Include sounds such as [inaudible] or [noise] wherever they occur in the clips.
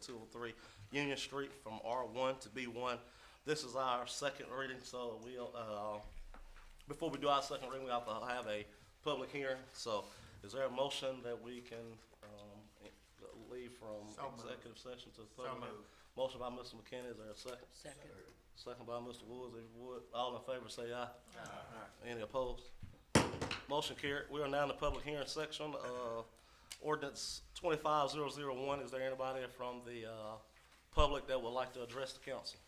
two oh three Union Street from R one to B one. This is our second reading, so we'll, uh, before we do our second reading, we have to have a public hearing. So is there a motion that we can, um, leave from So moved. executive session to the So public? hearing? moved. Motion by Mr. McKinney, is there a second? Second. Second by Mr. Woods, if you would, all in favor say aye. Any opposed? Motion carried. We are now in the public hearing section of ordinance twenty-five zero zero one. Is there anybody from the, uh, public that would like to address the council?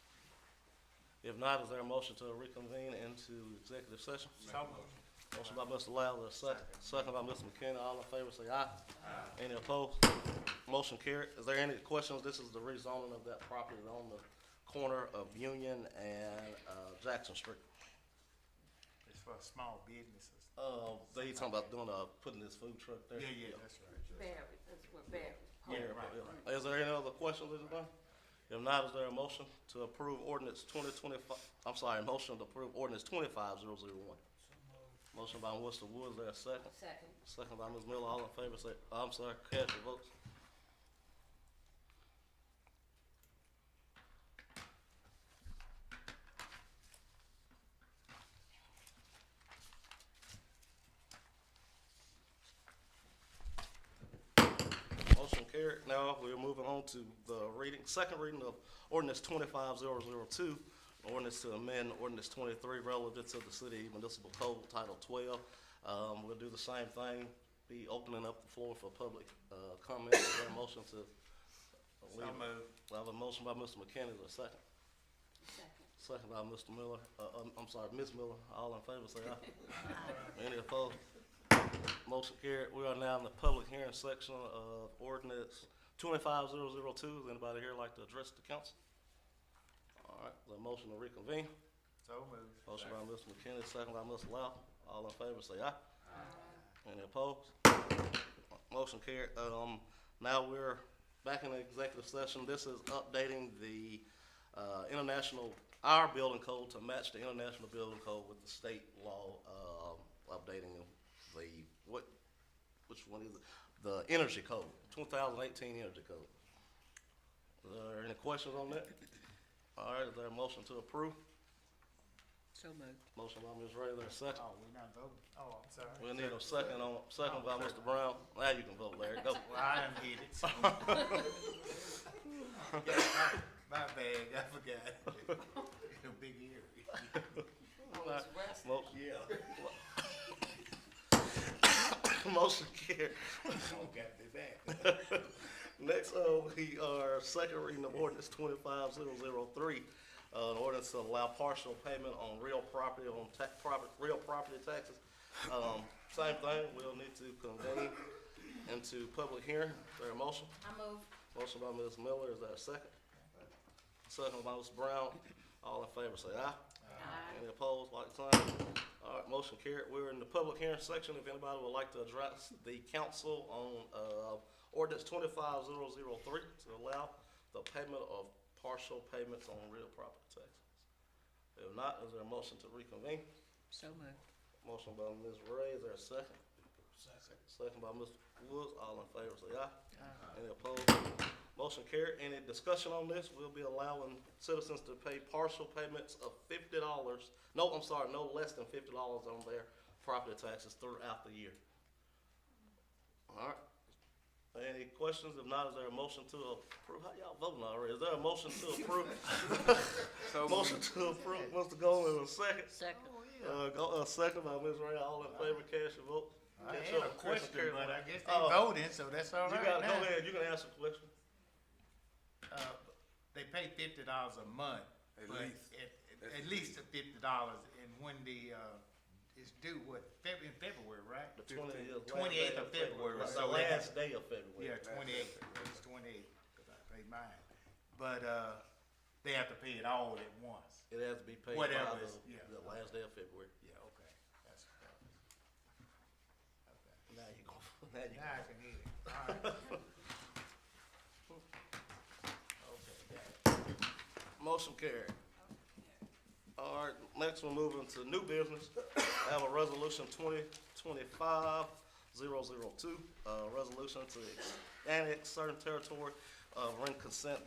If not, is there a motion to reconvene into executive session? So moved. Motion by Mr. Lowell, is second, second by Mr. McKenna. All in favor, say aye. Any opposed? Motion carried. Is there any questions? This is the rezoning of that property on the corner of Union and, uh, Jackson Street. It's for small businesses. Uh, they talking about doing, uh, putting this food truck there. Yeah, yeah, that's right. Barry, that's where Barry. Yeah, Yeah, right, right, yeah. Is there any other questions, anybody? If not, is there a motion to approve ordinance twenty twenty-five, I'm sorry, motion to approve ordinance twenty-five zero zero one? Motion by Mr. Woods, is there a second? Second. Second by Ms. Miller, all in favor, say, I'm sorry, cast your votes. Motion carried. Now we're moving on to the reading, second reading of ordinance twenty-five zero zero two, ordinance to amend ordinance twenty-three relative to the city municipal code title twelve. Um, we'll do the same thing, be opening up the floor for public, uh, comment. Is there a motion to? So moved. I have a motion by Mr. McKenna, is there a second? Second. Second by Mr. Miller, uh, um, I'm sorry, Ms. Miller, all in favor, say aye. Any opposed? Motion carried. We are now in the public hearing section of ordinance twenty-five zero zero two. Does anybody here like to address the council? All right, the motion to reconvene. So moved. Motion by Mr. McKinney, second by Mr. Lau. All in favor, say aye. Any opposed? Motion carried. Um, now we're back in the executive session. This is updating the, uh, international, our building code to match the international building code with the state law, um, updating the, what, which one is it? The energy code, two thousand eighteen energy code. Is there any questions on that? All right, is there a motion to approve? So moved. Motion by Ms. Ray, there's a second. Oh, we not voting. Oh, I'm sorry. We'll need a second on, second by Mr. Brown. Now you can vote, Larry, go. Well, I done hit [laughs] it. My bad, I forgot. [laughs] The big ear. Always resting. Mo- Yeah. [coughs] Motion carried. Oh, got me back. Next, uh, we are second reading of ordinance twenty-five zero zero three. Uh, an ordinance to allow partial payment on real property, on ta- property, real property taxes. Um, same thing, we'll need to convene into public hearing. Is there a motion? I move. Motion by Ms. Miller, is there a second? Second by Ms. Brown. All in favor, say aye. Any opposed, like sign? All right, motion carried. We're in the public hearing section. If anybody would like to address the council on, uh, ordinance twenty-five zero zero three to allow the payment of partial payments on real property taxes. If not, is there a motion to reconvene? So moved. Motion by Ms. Ray, is there a second? Second by Mr. Woods, all in favor, say aye. Any opposed? Motion carried. Any discussion on this? We'll be allowing citizens to pay partial payments of fifty dollars, no, I'm sorry, no less than fifty dollars on their property taxes throughout the year. All right. Any questions? If not, is there a motion to approve? How y'all voting already? Is there a motion to approve? Motion to approve, Mr. Goldman, a second. Second. Uh, go, uh, second by Ms. Ray, all in favor, cast your vote. I Cast had your- a cast your question, carry but vote. I guess they Oh, voting, so that's all You right gotta, go now. ahead, you can ask a question. Uh, They pay fifty dollars a month. At but least. At, at least the fifty dollars, and when the, uh, it's due, what, Feb- in February, right? The 20 is the last 28th day of February, Right, The so it- last day of February. Yeah, twenty-eight, it's twenty-eight, 'cause I paid mine. But, uh, they have to pay it all at once. It has to be paid by Whatever is- yeah. the, the last day of February. Yeah, okay, that's what that was. Okay. Now you go, now [laughs] you Now I can hear it, all right. [laughs] Okay, got it. Motion carried. All right, next we're moving to new business. [coughs] I have a resolution twenty twenty-five zero zero two, uh, resolution to annex certain territory uh, rent consent